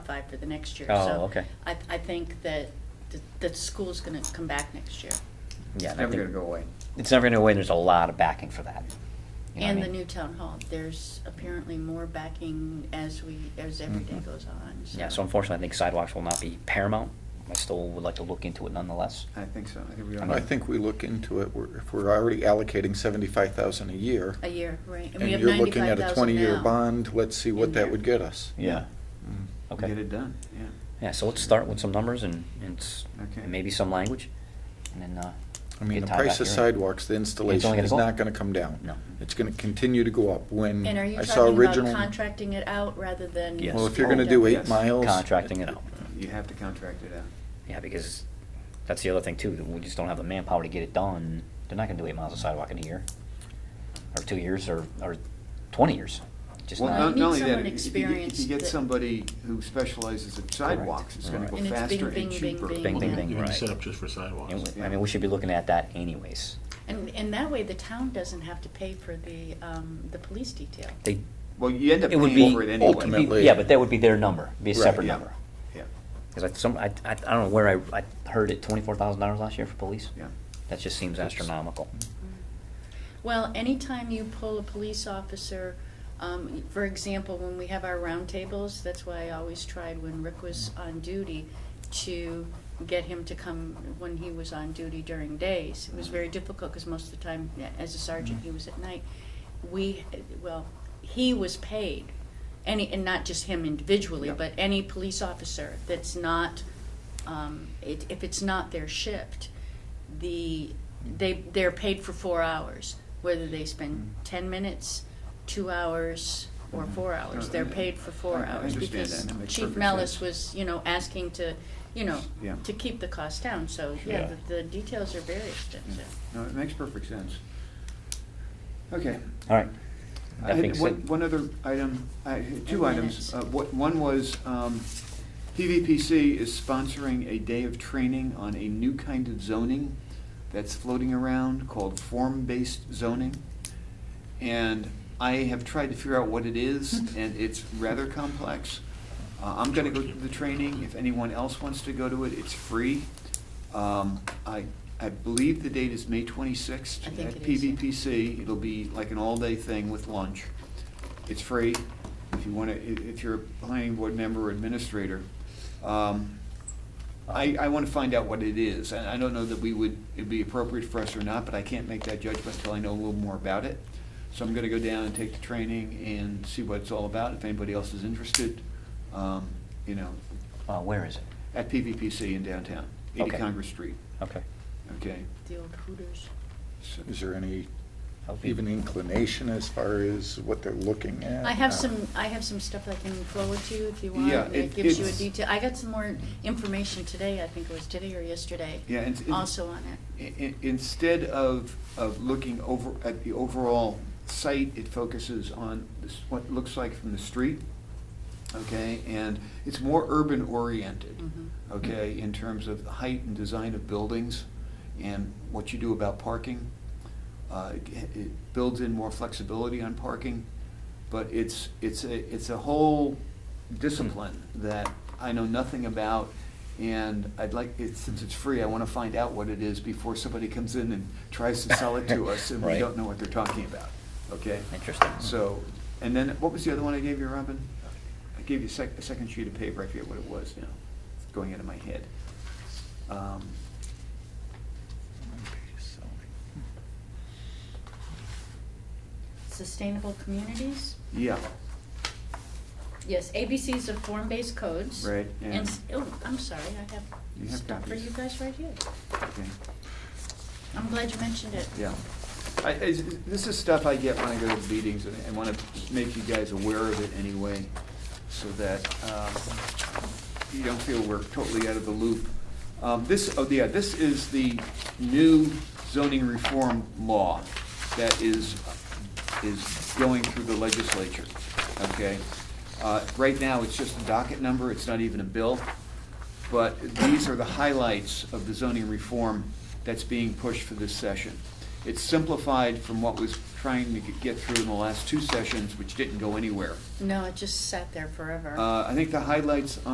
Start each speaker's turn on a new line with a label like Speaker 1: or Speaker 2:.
Speaker 1: five for the next year.
Speaker 2: Oh,
Speaker 1: So
Speaker 2: okay.
Speaker 1: I, I think that the, the school's gonna come back next year.
Speaker 2: Yeah,
Speaker 3: It's
Speaker 2: and I
Speaker 3: never
Speaker 2: think-
Speaker 3: gonna go away.
Speaker 2: It's never gonna go away, there's a lot of backing for that. You know what I
Speaker 1: And the
Speaker 2: mean?
Speaker 1: new town hall, there's apparently more backing as we, as every day goes on, so.
Speaker 2: Mm-hmm. Yeah, so unfortunately, I think sidewalks will not be paramount. I still would like to look into it nonetheless.
Speaker 3: I think so. I think we.
Speaker 2: I
Speaker 3: all-
Speaker 2: mean-
Speaker 4: I think we look into it, We're- if we're already allocating seventy-five thousand a year.
Speaker 1: A year, right.
Speaker 4: And
Speaker 1: we have
Speaker 4: you're looking at a
Speaker 1: 95,000
Speaker 4: twenty-year
Speaker 1: now.
Speaker 4: bond, let's see
Speaker 1: in
Speaker 4: what
Speaker 1: there.
Speaker 4: that would get us.
Speaker 2: Yeah. Oh,
Speaker 4: Mm.
Speaker 3: Get
Speaker 2: Okay.
Speaker 3: it done, yeah.
Speaker 2: Yeah, so let's start with some numbers and, and s-
Speaker 3: Okay.
Speaker 2: and maybe some language, and then, uh.
Speaker 4: I mean,
Speaker 2: get
Speaker 4: the
Speaker 2: Todd
Speaker 4: price
Speaker 2: back
Speaker 4: of
Speaker 2: here.
Speaker 4: sidewalks, the installation
Speaker 2: gonna
Speaker 4: is
Speaker 2: go up.
Speaker 4: not gonna come down.
Speaker 2: No.
Speaker 4: It's gonna continue to go up when
Speaker 1: And are you
Speaker 4: I saw
Speaker 1: talking about
Speaker 4: original.
Speaker 1: contracting it out rather than?
Speaker 2: Yes.
Speaker 4: Well, if you're gonna do eight
Speaker 3: Yes.
Speaker 4: miles.
Speaker 2: Contracting it out.
Speaker 3: You have to contract it out.
Speaker 2: Yeah, because that's the other thing too, that we just don't have the manpower to get it done. They're not gonna do eight miles of sidewalk in a year, or two years, or, or twenty years. Just
Speaker 3: Well,
Speaker 1: not-
Speaker 3: no-
Speaker 1: You
Speaker 2: not,
Speaker 1: need
Speaker 3: not only that,
Speaker 1: someone
Speaker 3: if you- If
Speaker 1: experienced
Speaker 3: you get
Speaker 1: that-
Speaker 3: somebody who specializes in sidewalks, it's gonna
Speaker 2: Right.
Speaker 3: go
Speaker 1: And it's
Speaker 3: faster
Speaker 1: bing,
Speaker 3: and
Speaker 1: bing, bing,
Speaker 3: cheaper.
Speaker 1: bing,
Speaker 2: Bing,
Speaker 1: Well,
Speaker 2: bing,
Speaker 1: then
Speaker 2: bing,
Speaker 5: You can
Speaker 2: right.
Speaker 5: set up just for sidewalks.
Speaker 2: And we- I mean, we should be looking at that anyways.
Speaker 1: And, and that way the town doesn't have to pay for the, um, the police detail.
Speaker 2: They,
Speaker 3: Well, you end up
Speaker 2: It would
Speaker 3: paying
Speaker 2: be-
Speaker 3: for it anyway.
Speaker 4: ultimately-
Speaker 2: yeah, but that would be their number, be a
Speaker 4: Right,
Speaker 2: separate
Speaker 3: yeah.
Speaker 2: number.
Speaker 3: Yeah,
Speaker 2: Because I, some, I, I I don't know where I, I heard it, twenty-four thousand dollars last year for police?
Speaker 3: yeah.
Speaker 2: That just seems astronomical.
Speaker 1: Well, anytime you pull a police officer, um, for example, when we have our roundtables, that's why I always tried when Rick was on duty to get him to come when he was on duty during days. It was very difficult because most of the time, yeah, as a sergeant, he was at night. We, well, he was paid, any, and not just him individually,
Speaker 3: Yeah.
Speaker 1: but any police officer that's not, um, it, if it's not their shift, the, they, they're paid for four hours, whether they spend
Speaker 3: Mm-hmm.
Speaker 1: ten minutes, two hours, or four hours, they're paid for
Speaker 3: I-
Speaker 1: four
Speaker 3: I
Speaker 1: hours.
Speaker 3: understand
Speaker 1: Because
Speaker 3: that, and it makes
Speaker 1: Chief
Speaker 3: perfect
Speaker 1: Mellis
Speaker 3: sense.
Speaker 1: was, you know, asking to, you know,
Speaker 3: Yeah.
Speaker 1: to keep the cost down, so, yeah,
Speaker 5: Yeah.
Speaker 1: the, the details are very
Speaker 3: Yeah.
Speaker 1: extensive.
Speaker 3: Mm. No, it makes perfect sense. Okay.
Speaker 2: All right.
Speaker 3: I
Speaker 2: That
Speaker 3: had
Speaker 2: being
Speaker 3: one-
Speaker 2: said-
Speaker 3: One other item, I had two
Speaker 1: And
Speaker 3: items.
Speaker 1: minutes.
Speaker 3: Uh, what- One was um, PVPC is sponsoring a day of training on a new kind of zoning that's floating around called form-based zoning. And I have tried to figure out what it is, and it's rather complex. Uh, I'm gonna go to the training. If anyone else wants to go to it, it's free. Um, I, I believe the date is May twenty-sixth
Speaker 1: I
Speaker 3: at
Speaker 1: think it is, yeah.
Speaker 3: PVPC. It'll be like an all-day thing with lunch. It's free if you wanna, i- if you're a planning board member or administrator. Um, I, I wanna find out what it is. And I don't know that we would, it'd be appropriate for us or not, but I can't make that judgment until I know a little more about it. So I'm gonna go down and take the training and see what it's all about, if anybody else is interested. Um, You know,
Speaker 2: Uh, where is it?
Speaker 3: at PVPC in downtown, eighty
Speaker 2: Okay.
Speaker 3: Congress Street,
Speaker 2: Okay.
Speaker 3: okay?
Speaker 1: The old Hooters.
Speaker 3: So-
Speaker 4: Is there any
Speaker 2: I'll be-
Speaker 4: even inclination as far as what they're looking at?
Speaker 1: I have
Speaker 4: Uh,
Speaker 1: some, I have some stuff I can forward to you if you want.
Speaker 3: Yeah,
Speaker 1: It
Speaker 3: it-
Speaker 1: gives you a
Speaker 3: it's-
Speaker 1: detail, I got some more information today, I think it was today or yesterday,
Speaker 3: Yeah, and- and-
Speaker 1: also on it.
Speaker 3: I- i- Instead of, of looking over, at the overall site, it focuses on this- what it looks like from the street, okay? And it's more urban oriented,
Speaker 1: Mhm.
Speaker 3: okay, in terms of the height and design of buildings and what you do about parking. Uh, It it builds in more flexibility on parking, but it's, it's a, it's a whole discipline that I know nothing about, and I'd like, it- since it's free, I want to find out what it is before somebody comes in and tries to sell it to us, and we
Speaker 2: Right.
Speaker 3: don't know what they're talking about, okay?
Speaker 2: Interesting.
Speaker 3: So, and then, what was the other one I gave you, Robin? I gave you a sec, a second sheet of paper, I forget what it was now, it's going out of my head. Um,
Speaker 1: Sustainable communities?
Speaker 3: Yeah,
Speaker 1: Yes, ABCs of form-based codes.
Speaker 3: Right, and-
Speaker 1: And, s- oh, I'm sorry, I have
Speaker 3: You have
Speaker 1: stuff for
Speaker 3: copies.
Speaker 1: you guys right here.
Speaker 3: okay,
Speaker 1: I'm glad you mentioned it.
Speaker 3: yeah. I, I, this is stuff I get when I go to meetings, and I want to make you guys aware of it anyway, so that, um, you don't feel we're totally out of the loop. Um, this, oh, yeah, this is the new zoning reform law that is, is going through the legislature, okay? Uh, right now, it's just a docket number, it's not even a bill, but these are the highlights of the zoning reform that's being pushed for this session. It's simplified from what was trying to get through in the last two sessions, which didn't go anywhere.
Speaker 1: No, it just sat there forever.
Speaker 3: Uh, I think the highlights